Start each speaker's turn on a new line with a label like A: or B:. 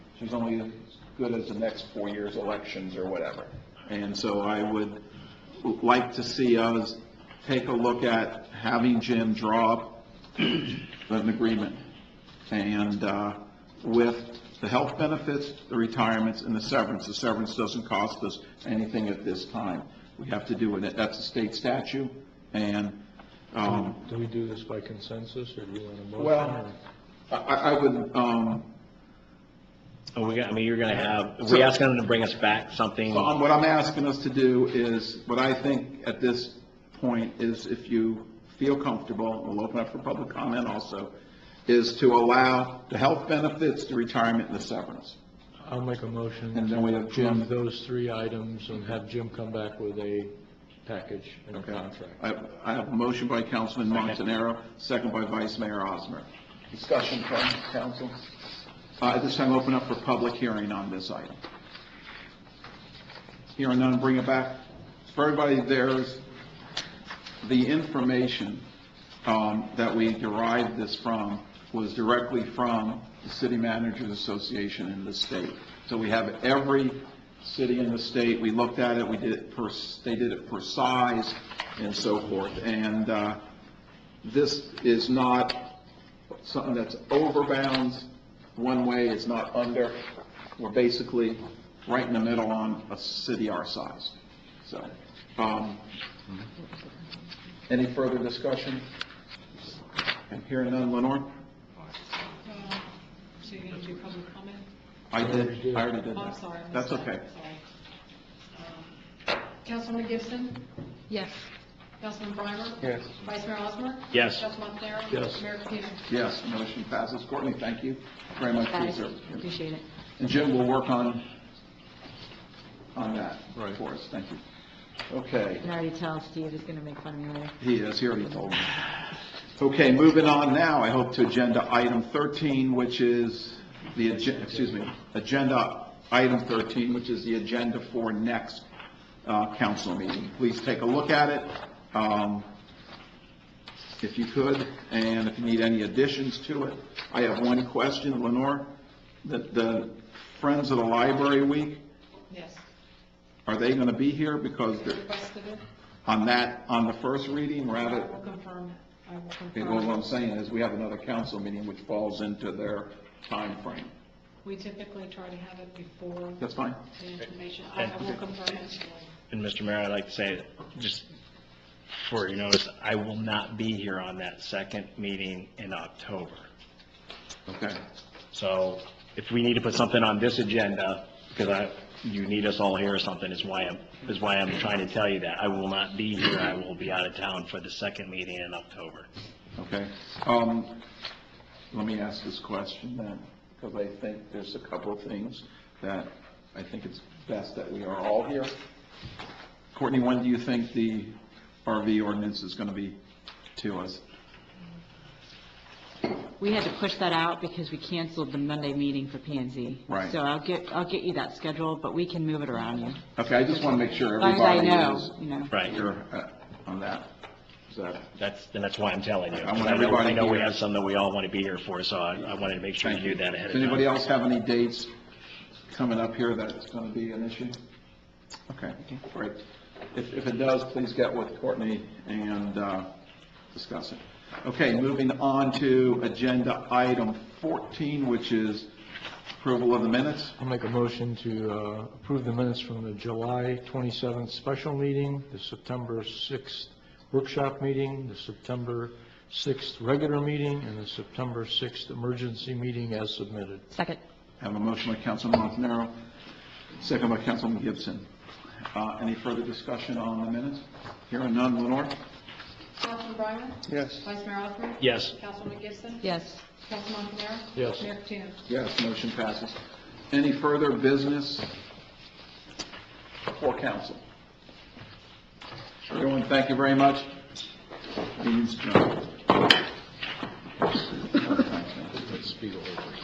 A: She's only as good as the next four years' elections or whatever. And so I would like to see us take a look at having Jim draw up an agreement. And uh, with the health benefits, the retirements, and the severance, the severance doesn't cost us anything at this time. We have to do it, that's a state statute, and, um,
B: Do we do this by consensus, or do you want a motion?
A: well, I, I I would, um,
C: Are Oh, we, gonna- I mean, you're gonna have, are we asking them to bring us back something?
A: So, um, What I'm asking us to do is, what I think at this point is if you feel comfortable, we'll open up for public comment also, is to allow the health benefits, the retirement, and the severance.
B: I'll make a motion.
A: And then we have
B: to
A: Jim.
B: approve Those three items, and have Jim come back with a package and a contract.
A: I I have a motion by Councilman Montanaro, second by Vice Mayor Osmer. Discussion from council? Uh, At this time, open up for public hearing on this item. Hearing none, bring it back. For everybody, there's the information um, that we derived this from was directly from the City Managers Association in the state. So we have every city in the state, we looked at it, we did it per, they did it per size and so forth. And uh, this is not something that's overbounds one way, it's not under. We're basically right in the middle on a city our size. So, um, any further discussion? And hearing none, Lenore?
D: So you're going to do public comment?
A: I did, I already did
D: Oh, I'm
A: that.
D: sorry. I missed
A: That's
D: that.
A: okay.
D: Sorry. Um, Councilwoman Gibson?
E: Yes.
D: Councilman Breimer?
A: Yes.
D: Vice Mayor Osmer?
C: Yes.
D: Councilman Montanaro?
B: Yes.
D: Mayor Patino?
A: Yes, motion passes. Courtney, thank you very much for your service.
E: Appreciate it.
A: And Jim will work on, on that
B: Right.
A: for us. Thank you. Okay,
E: I can already tell Steve is going to make fun of me later.
A: he is, he already told me. Okay, moving on now, I hope to agenda item 13, which is the, agen- excuse me, agenda item 13, which is the agenda for next uh, council meeting. Please take a look at it, um, if you could, and if you need any additions to it. I have one question, Lenore, the- the Friends of the Library Week,
D: Yes.
A: are they going to be here? Because
D: You
A: they're-
D: Requested it?
A: on that, on the first reading, we're at
D: I
A: it,
D: will confirm. I will
A: Okay, well, what
D: confirm.
A: I'm saying is, we have another council meeting which falls into their time frame.
D: We typically try to have it before
A: That's fine?
D: the information. I I will confirm it.
C: And Mr. Mayor, I'd like to say, just for your notice, I will not be here on that second meeting in October.
A: Okay.
C: So if we need to put something on this agenda, because I, you need us all here or something, is why I'm, is why I'm trying to tell you that. I will not be here, I will be out of town for the second meeting in October.
A: Okay. Um, Let me ask this question then, because I think there's a couple of things that I think it's best that we are all here. Courtney, when do you think the RV ordinance is going to be to us?
E: We had to push that out because we canceled the Monday meeting for P and Z.
A: Right.
E: So I'll get, I'll get you that schedule, but we can move it around you. As
A: Okay, I just want to make sure
E: long as I
A: everybody
E: know,
A: is
E: you know.
C: Right,
A: here uh, on that. Is that,
C: that's, and that's why I'm telling you.
A: I want
C: I know- I
A: everybody
C: know we
A: here.
C: have some that we all want to be here for, so I, I wanted to make sure you knew that ahead of
A: Does
C: time.
A: anybody else have any dates coming up here that's going to be an issue? Okay, great. If, if it does, please get with Courtney and uh, discuss it. Okay, moving on to agenda item 14, which is approval of the minutes.
B: I'll make a motion to uh, approve the minutes from the July 27th special meeting, the September 6th workshop meeting, the September 6th regular meeting, and the September 6th emergency meeting as submitted.
E: Second.
A: Have a motion by Councilman Montanaro, second by Councilman Gibson. Uh, Any further discussion on the minutes? Hearing none, Lenore?
D: Councilman Breimer?
A: Yes.
D: Vice Mayor Osmer?
C: Yes.
D: Councilwoman Gibson?
E: Yes.
D: Councilman Montanaro?
B: Yes.
D: Mayor Patino?
A: Yes, motion passes. Any further business for council? Everyone, thank you very much. Meeting's adjourned.